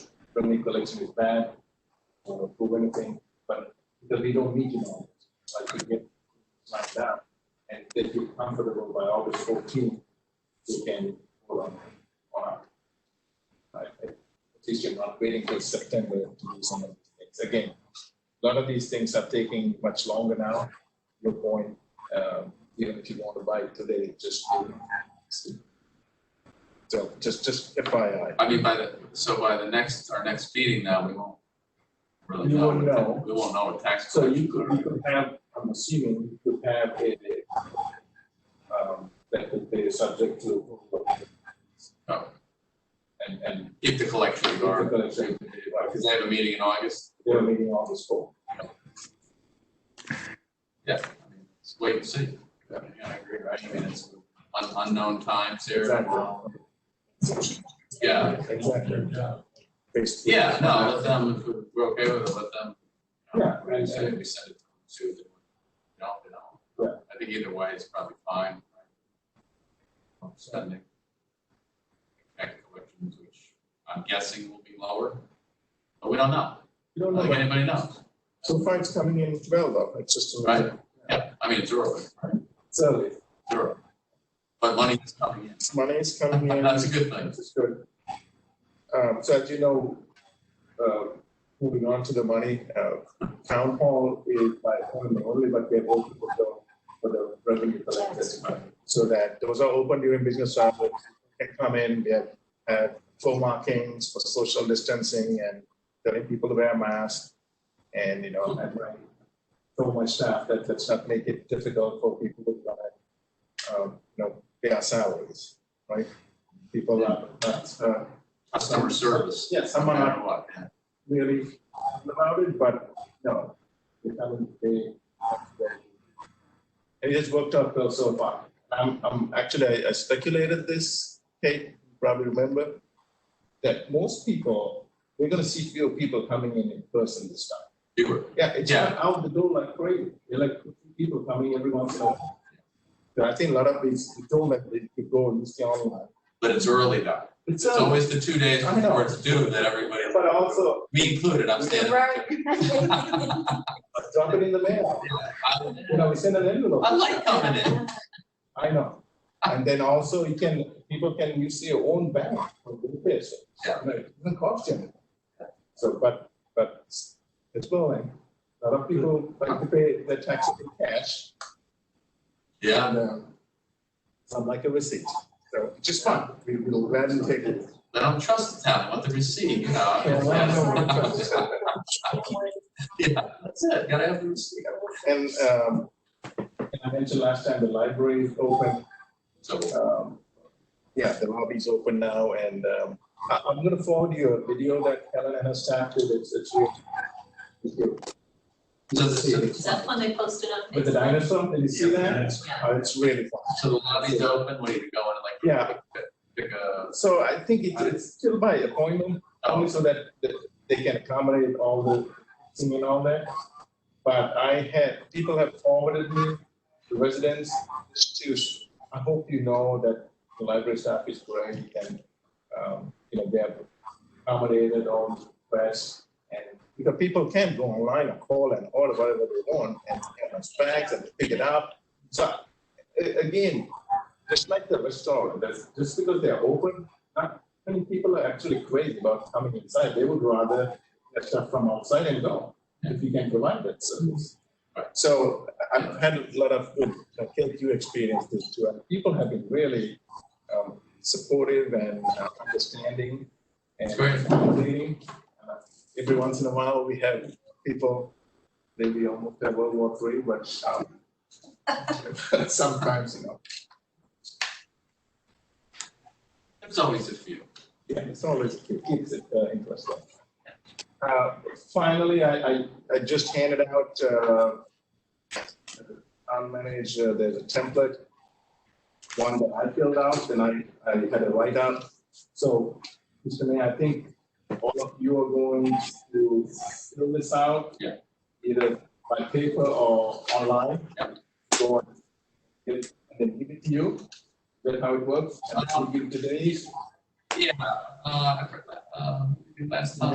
revenue collection is bad, or approve anything, but because we don't need to know, like we get lined up, and they feel comfortable by August fourteen, we can hold on, on our. I- I- At least you're not waiting till September to do some of these things. Again, a lot of these things are taking much longer now, your point, um, even if you want to buy it today, just. do it. So just, just FYI. I mean, by the, so by the next, our next meeting now, we won't really You know. won't what- know. We won't know what tax. So you collections could, are. you could have, I'm assuming you could have a, um, that could be subject to. Oh. And, and If the collections if the are, collection, like, because they have a meeting in August, they're meeting all this fall. yeah, I mean, let's wait and see. Yeah, I agree, right? I mean, it's un- unknown times here. Yeah, Exactly. Basically. yeah, no, let them, if we're okay with it, let them. you know, Yeah, We and- send it, we send it to them, see what they want. No, they don't. I think either way is probably fine. right? Spending. Tax collections, which I'm guessing will be lower, but we don't know. You I don't don't know, think but- anybody knows, so far it's coming in well though, it's just. a matter- yeah, I mean, it's early, right? It's early, It's early. But money is coming in, money is coming in. that's a good thing. This is good. Um, so as you know, uh, moving on to the money, uh, town hall is by appointment only, but they're open for the, for the revenue collectors. So that those are open during business hours, can come in, we have, uh, floor markings for social distancing and telling people to wear masks. And, you know, and right, so much staff that, let's not make it difficult for people to, uh, um, you know, pay our salaries, right? People are, that's, uh, Customer service, yeah, no some are not matter what, yeah. really about it, but no, they haven't, they. It has worked out well so far. I'm, I'm, actually, I- I speculated this, Kate, you probably remember, that most people, we're gonna see fewer people coming in in person this time. You were, Yeah, it's not out the door like crazy, There are like people coming every once in a while. So I think a lot of these, we told them they could go and use the online. but it's early though. It's, It's uh, always the two days I know. before it's due that everybody, but also, me included, I'm standing. Right. drop it in the mail, you know, we send an envelope. I like coming in. I know. And then also you can, people can use their own bank for the repair, so. Yeah. no, It doesn't cost you anything. So, but, but it's it's growing. A lot of people like to pay their taxes in cash. Yeah, and, um, Some like a receipt, so which is fun. We will gladly take it. they don't trust the town, they want the receipt, you know. Yeah, I know what it does. Yeah, that's it, gotta have the receipt. And, um, and I mentioned last time, the library is open. So, um, Yeah, the lobby's open now and um, I- I'm going to forward you a video that Helen and her staff did. It's, it's really- it's good. So the- so the- Is that when they posted on With the Facebook? dinosaur, did you see that? Yeah. Oh, It's really fun. so the lobby's open, where you go and like. Yeah. pick- Pick a, So I think it's, it's still by appointment, only so that, that they can accommodate all the singing and all that. But I had, people have forwarded me, the residents, to, I hope you know that the library staff is great and, um, you know, they have accommodated all the requests. And because people can go online and call and order whatever they want and, and it's bags and pick it up. So a- again, just like the restaurant, that's just because they're open, not many people are actually crazy about coming inside. They would rather get stuff from outside and go, if you can provide that service. So I've had a lot of good uh, KQ experiences too, and people have been really um, supportive and uh, understanding and It's great. accommodating. Uh, Every once in a while, we have people, maybe almost at World War Three, but um, sometimes, you know, there's always a few. Yeah, it's always, it keeps it uh, interesting. Uh, Finally, I, I, I just handed out, uh, unmanaged, uh, there's a template, one that I filled out, and I, I had a write-up. So, Mr. Mayor, I think all of you are going to fill this out. Yeah. Either by paper or online. Yeah. Go and get it, and then give it to you. Is that how Um, it works? And I'll give it to Denise. Yeah, uh, I forgot, uh, last time.